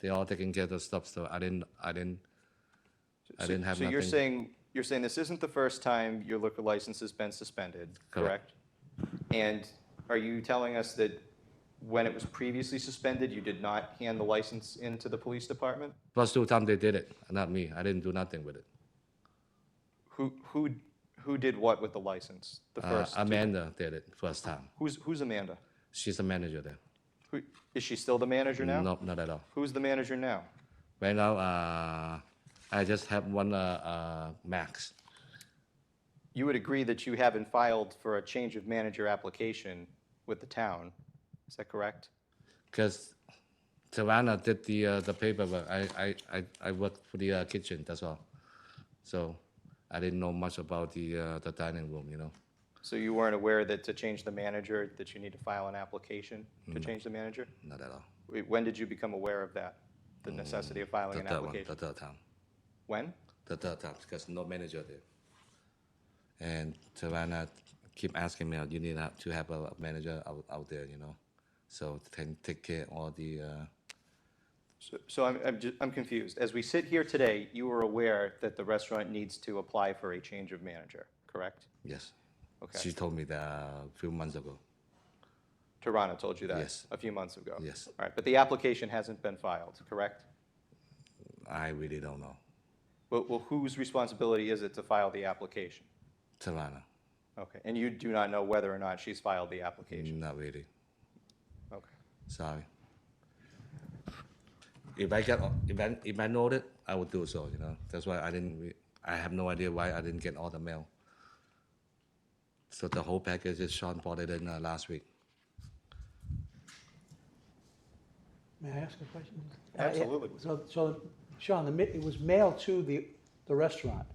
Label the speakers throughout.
Speaker 1: They are taking care of the stuff, so I didn't, I didn't, I
Speaker 2: So-
Speaker 1: didn't have
Speaker 2: So you're
Speaker 1: nothing.
Speaker 2: saying, you're saying this isn't the first time your liquor license has been suspended,
Speaker 1: Correct.
Speaker 2: correct? And are you telling us that when it was previously suspended, you did not hand the license into the police department?
Speaker 1: Plus two times they did it, not me. I didn't do nothing with it.
Speaker 2: Who, who, who did what with the license? The
Speaker 1: Uh,
Speaker 2: first,
Speaker 1: Amanda did it first time.
Speaker 2: who's, who's Amanda?
Speaker 1: She's the manager there.
Speaker 2: Who, is she still the manager now?
Speaker 1: No, not at all.
Speaker 2: Who's the manager now?
Speaker 1: Right now, uh, I just have one, uh, uh, Max.
Speaker 2: You would agree that you haven't filed for a change of manager application with the town, is that correct?
Speaker 1: Because Tawana did the, uh, the paperwork. I, I, I, I worked for the uh, kitchen, that's all. So I didn't know much about the, uh, the dining room, you know?
Speaker 2: So you weren't aware that to change the manager, that you need to file an application
Speaker 1: Mm.
Speaker 2: to change the manager?
Speaker 1: Not at all.
Speaker 2: Wait, When did you become aware of that, the necessity of filing
Speaker 1: The
Speaker 2: an
Speaker 1: third Mm. one,
Speaker 2: application?
Speaker 1: the third time.
Speaker 2: When?
Speaker 1: the third time because no manager there. And Savannah keep asking me, you need to have- to have a manager out, out there, you know, so can take care of all the. Uh,
Speaker 2: So- So I'm, I'm ju- I'm confused. As we sit here today, you were aware that the restaurant needs to apply for a change of manager, correct?
Speaker 1: yes.
Speaker 2: Okay.
Speaker 1: She told me that a few months ago.
Speaker 2: Toronto told you that?
Speaker 1: Yes.
Speaker 2: A few months ago?
Speaker 1: Yes.
Speaker 2: All right, but the application hasn't been filed, correct?
Speaker 1: I really don't know.
Speaker 2: Well, well, whose responsibility is it to file the application?
Speaker 1: Savannah,
Speaker 2: Okay, and you do not know whether or not she's filed the application?
Speaker 1: not really. Mm.
Speaker 2: Okay.
Speaker 1: Sorry. If I get if I, if I know it, I would do so. You know, that's why I didn't. Re- I have no idea why I didn't get all the mail. So the whole package is Sean bought it in uh, last week.
Speaker 3: May I ask a question? Uh,
Speaker 2: Absolutely.
Speaker 3: So, so, Sean, the, mi- it was mailed to the, the restaurant,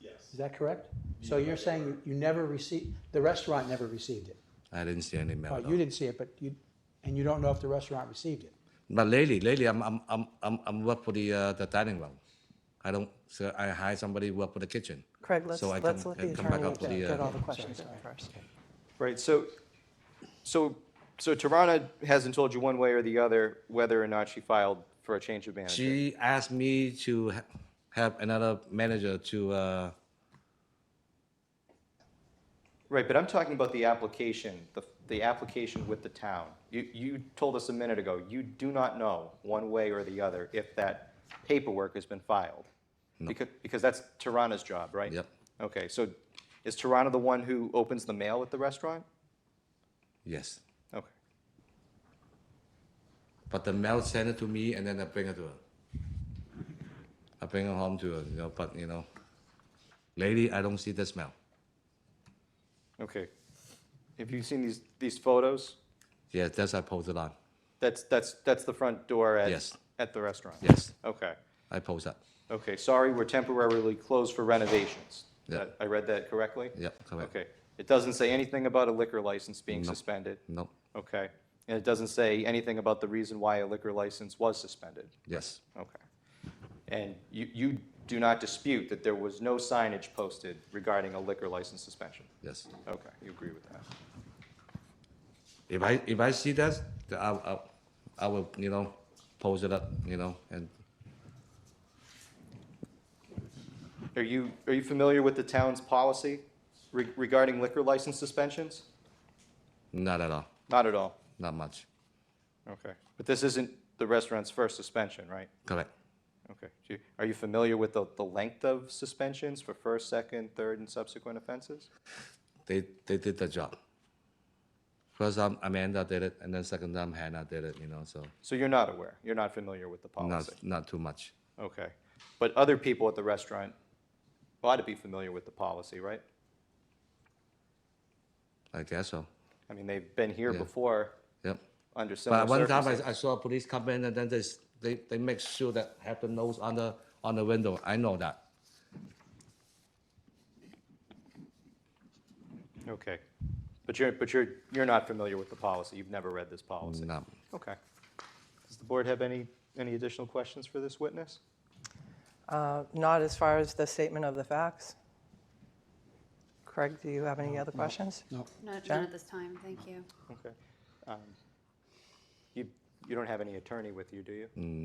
Speaker 4: Yes.
Speaker 3: is that correct? So you're saying you never received, the restaurant never received it?
Speaker 1: I didn't see any mail.
Speaker 3: Oh,
Speaker 1: at all.
Speaker 3: you didn't see it, but you, and you don't know if the restaurant received it?
Speaker 1: But lately, lately, I'm I'm I'm I'm, I'm work for the uh, the dining room. I don't. So I hire somebody work for the kitchen.
Speaker 5: Craig, let's,
Speaker 1: so I
Speaker 5: let's
Speaker 1: come,
Speaker 5: let
Speaker 1: can
Speaker 5: the
Speaker 1: come back
Speaker 5: attorney
Speaker 1: up to the.
Speaker 5: get all
Speaker 1: Uh,
Speaker 5: the questions in first.
Speaker 2: Right, so, so, so Tarana hasn't told you one way or the other whether or not she filed for a change of manager?
Speaker 1: she asked me to ha- have another manager to. Uh,
Speaker 2: Right, but I'm talking about the application, the, the application with the town. You, you told us a minute ago, you do not know one way or the other if that paperwork has been filed. Because, because that's Tarana's job, right?
Speaker 1: Yep.
Speaker 2: Okay, so is Tarana the one who opens the mail at the restaurant?
Speaker 1: yes.
Speaker 2: Okay.
Speaker 1: But the mail sent it to me, and then I bring it to her. I bring it home to her, you know. But you know, lady, I don't see the smell.
Speaker 2: Okay. Have you seen these, these photos?
Speaker 1: Yes, that's I posted on.
Speaker 2: That's, that's, that's the front door at,
Speaker 1: Yes.
Speaker 2: at the restaurant?
Speaker 1: Yes,
Speaker 2: Okay.
Speaker 1: I posted.
Speaker 2: Okay, sorry, we're temporarily closed for renovations.
Speaker 1: Yeah.
Speaker 2: That- I read that correctly?
Speaker 1: Yep, correct.
Speaker 2: Okay. It doesn't say anything about a liquor license being suspended?
Speaker 1: No.
Speaker 2: Okay. And it doesn't say anything about the reason why a liquor license was suspended?
Speaker 1: Yes.
Speaker 2: Okay. And you, you do not dispute that there was no signage posted regarding a liquor license suspension?
Speaker 1: Yes.
Speaker 2: Okay, you agree with that?
Speaker 1: If I if I see that, then I I, I will you know post it up you know and
Speaker 2: Are you, are you familiar with the town's policy re- regarding liquor license suspensions?
Speaker 1: not at all,
Speaker 2: Not at all.
Speaker 1: not much.
Speaker 2: Okay. But this isn't the restaurant's first suspension, right?
Speaker 1: Correct.
Speaker 2: Okay. Do you- Are you familiar with the, the length of suspensions for first, second, third, and subsequent offenses?
Speaker 1: They they did the job. First time Amanda did it, and then second time Hannah did it. You know, so
Speaker 2: So you're not aware, you're not familiar with the
Speaker 1: not
Speaker 2: policy?
Speaker 1: not too much.
Speaker 2: Okay. But other people at the restaurant ought to be familiar with the policy, right?
Speaker 1: I guess so.
Speaker 2: I mean, they've been here
Speaker 1: Yeah.
Speaker 2: before
Speaker 1: Yep.
Speaker 2: under similar
Speaker 1: But one time
Speaker 2: circumstances.
Speaker 1: I, I saw police come in and then they, s- they, they make sure that have the nose on the, on the window. I know that.
Speaker 2: Okay. But you're, but you're, you're not familiar with the policy, you've never read this policy?
Speaker 1: No.
Speaker 2: Okay. Does the board have any, any additional questions for this witness?
Speaker 5: Uh, Not as far as the statement of the facts. Craig, do you have any other questions?
Speaker 3: No.
Speaker 6: Not,
Speaker 5: Jen?
Speaker 6: not at this time, thank you.
Speaker 2: Okay. Um, You, you don't have any attorney with you, do you?